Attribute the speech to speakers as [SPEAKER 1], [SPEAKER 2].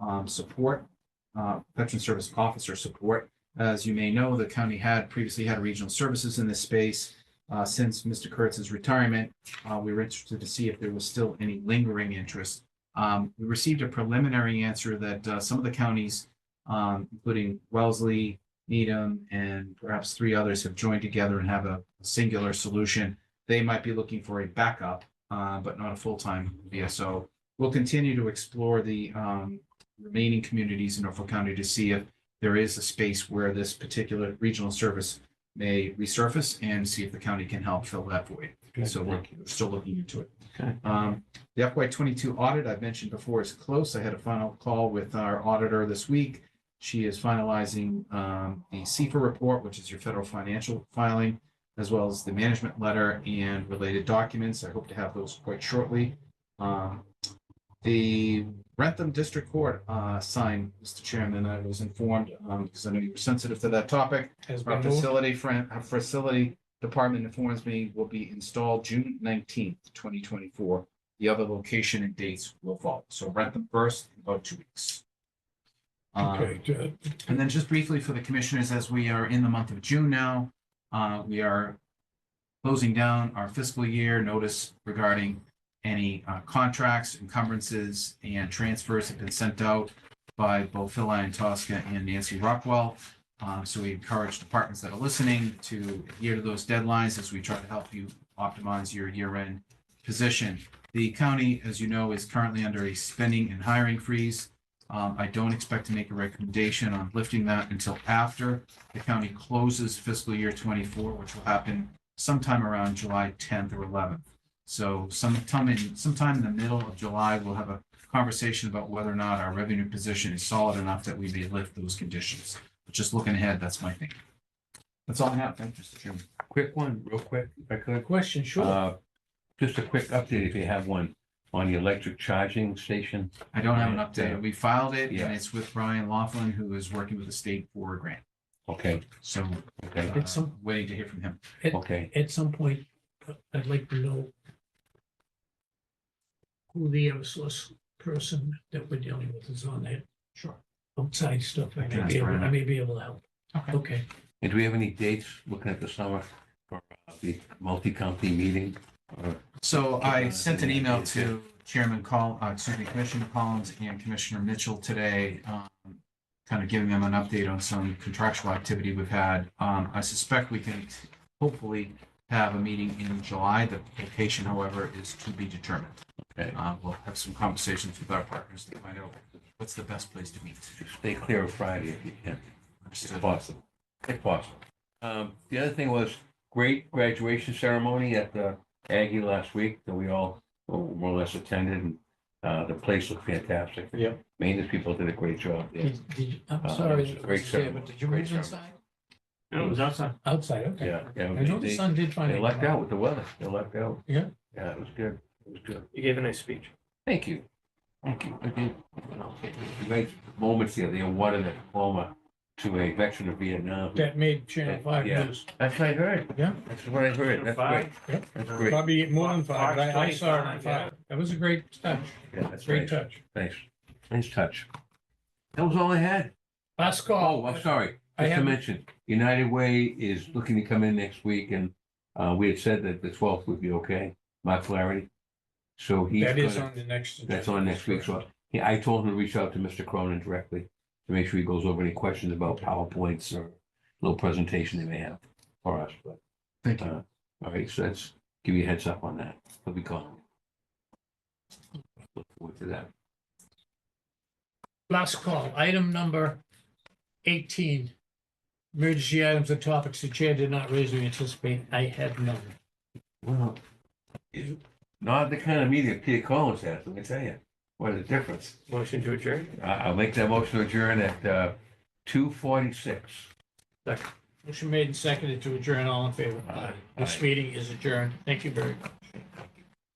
[SPEAKER 1] um, support, uh, veteran service officer support. As you may know, the county had previously had regional services in this space. Uh, since Mr. Kurtz's retirement, uh, we were interested to see if there was still any lingering interest. Um, we received a preliminary answer that, uh, some of the counties, um, including Wellesley, Needham, and perhaps three others have joined together and have a singular solution. They might be looking for a backup, uh, but not a full-time VSO. We'll continue to explore the, um, remaining communities in Norfolk County to see if there is a space where this particular regional service may resurface and see if the county can help fill that void. So we're we're still looking into it.
[SPEAKER 2] Okay.
[SPEAKER 1] Um, the FY twenty-two audit I've mentioned before is close. I had a final call with our auditor this week. She is finalizing, um, the CFA report, which is your federal financial filing, as well as the management letter and related documents. I hope to have those quite shortly. Um, the Rentham District Court, uh, sign, Mr. Chairman, I was informed, um, because I know you were sensitive to that topic.
[SPEAKER 3] Has
[SPEAKER 1] Our
[SPEAKER 3] been moved.
[SPEAKER 1] facility, friend, our facility department informs me will be installed June nineteenth, twenty twenty-four. The other location and dates will follow. So rent them first in about two weeks. Uh,
[SPEAKER 3] Okay, ju-
[SPEAKER 1] and then just briefly for the commissioners, as we are in the month of June now, uh, we are closing down our fiscal year notice regarding any uh, contracts, encumbrances, and transfers have been sent out by both Phil and Tosca and Nancy Rockwell. Uh, so we encourage departments that are listening to adhere to those deadlines as we try to help you optimize your year-end position. The county, as you know, is currently under a spending and hiring freeze. Um, I don't expect to make a recommendation on lifting that until after the county closes fiscal year twenty-four, which will happen sometime around July tenth or eleventh. So sometime in, sometime in the middle of July, we'll have a conversation about whether or not our revenue position is solid enough that we may lift those conditions. But just looking ahead, that's my thing. That's all I have. Thank you, Mr. Chairman.
[SPEAKER 2] Quick one, real quick, if I could.
[SPEAKER 3] question, sure.
[SPEAKER 2] Uh, Just a quick update, if you have one, on the electric charging station.
[SPEAKER 1] I don't have an
[SPEAKER 2] Right, yeah.
[SPEAKER 1] update. We filed it
[SPEAKER 2] Yeah.
[SPEAKER 1] and it's with Brian Laughlin, who is working with the state for a grant.
[SPEAKER 2] Okay,
[SPEAKER 1] So
[SPEAKER 2] okay,
[SPEAKER 1] uh,
[SPEAKER 3] It's some-
[SPEAKER 1] waiting to hear from him.
[SPEAKER 2] okay.
[SPEAKER 3] At some point, uh, I'd like to know who the Eversource person that we're dealing with is on that
[SPEAKER 1] Sure.
[SPEAKER 3] outside stuff. I may be
[SPEAKER 1] Transfer
[SPEAKER 3] able,
[SPEAKER 1] it.
[SPEAKER 3] I may be able to help.
[SPEAKER 1] Okay.
[SPEAKER 3] Okay,
[SPEAKER 2] And do we have any dates looking at the summer for uh, the multi-county meeting? Or-
[SPEAKER 1] So I sent an email
[SPEAKER 2] Yeah.
[SPEAKER 1] to Chairman Col, uh, excuse me, Commissioner Collins and Commissioner Mitchell today, um, kind of giving them an update on some contractual activity we've had. Um, I suspect we can hopefully have a meeting in July. The location, however, is to be determined.
[SPEAKER 2] Okay.
[SPEAKER 1] Uh, we'll have some conversations with our partners to find out what's the best place to meet.
[SPEAKER 2] Stay clear of Friday if you can, if
[SPEAKER 1] Understood.
[SPEAKER 2] possible, if possible. Um, The other thing was great graduation ceremony at the Aggie last week that we all oh, more or less attended. and uh, The place looked fantastic.
[SPEAKER 3] Yep.
[SPEAKER 2] Maintenance people did a great job there.
[SPEAKER 3] Did- did you- I'm
[SPEAKER 2] Uh,
[SPEAKER 3] sorry,
[SPEAKER 2] it's a great
[SPEAKER 3] Mr. Chair,
[SPEAKER 2] ceremony.
[SPEAKER 3] but did you
[SPEAKER 2] Great
[SPEAKER 3] move
[SPEAKER 2] ceremony.
[SPEAKER 3] inside?
[SPEAKER 4] No, it was outside.
[SPEAKER 3] Outside, okay.
[SPEAKER 2] Yeah. yeah,
[SPEAKER 3] I
[SPEAKER 2] they-
[SPEAKER 3] know the
[SPEAKER 2] they-
[SPEAKER 3] sun did find.
[SPEAKER 2] They lucked out with the weather. They lucked out.
[SPEAKER 3] Yeah.
[SPEAKER 2] Yeah, it was good. It was good.
[SPEAKER 4] You gave a nice speech.
[SPEAKER 2] Thank you. Thank you. I did. Great moments here. They awarded a diploma to a veteran of Vietnam.
[SPEAKER 3] That made Channel Five
[SPEAKER 2] Yeah.
[SPEAKER 3] news.
[SPEAKER 2] That's what I heard.
[SPEAKER 3] Yeah.
[SPEAKER 2] That's what I heard. That's great.
[SPEAKER 3] Yep.
[SPEAKER 2] That's great.
[SPEAKER 3] Probably more than five, but I I
[SPEAKER 4] Fox
[SPEAKER 3] saw it on
[SPEAKER 4] 25, yeah.
[SPEAKER 3] five. That was a great touch,
[SPEAKER 2] Yeah, that's great.
[SPEAKER 3] great touch.
[SPEAKER 2] Thanks. Nice touch. That was all I had.
[SPEAKER 3] Last
[SPEAKER 2] Oh,
[SPEAKER 3] call.
[SPEAKER 2] I'm sorry.
[SPEAKER 3] I
[SPEAKER 2] Just to
[SPEAKER 3] haven't-
[SPEAKER 2] mention, United Way is looking to come in next week and uh, we had said that the twelfth would be okay, Mark Flaherty. So he's.
[SPEAKER 3] That is
[SPEAKER 2] gonna-
[SPEAKER 3] on the next.
[SPEAKER 2] That's on next week, so yeah, I told him to reach out to Mr. Cronin directly to make sure he goes over any questions about PowerPoints or little presentation they may have for us, but,
[SPEAKER 1] Thank you.
[SPEAKER 2] uh, all right, so that's, give you a heads up on that. He'll be calling. Look forward to that.
[SPEAKER 3] Last call, item number eighteen. Emergency items and topics the chair did not raise or anticipate. I had none.
[SPEAKER 2] Well, it's not the kind of meeting that Peter Collins has, let me tell you. What a difference.
[SPEAKER 4] Motion to adjourn?
[SPEAKER 2] I, I'll make that motion to adjourn at, uh, two forty-six.
[SPEAKER 3] Motion made and seconded to adjourn. All in favor?
[SPEAKER 2] Aye.
[SPEAKER 3] This meeting is adjourned. Thank you very much.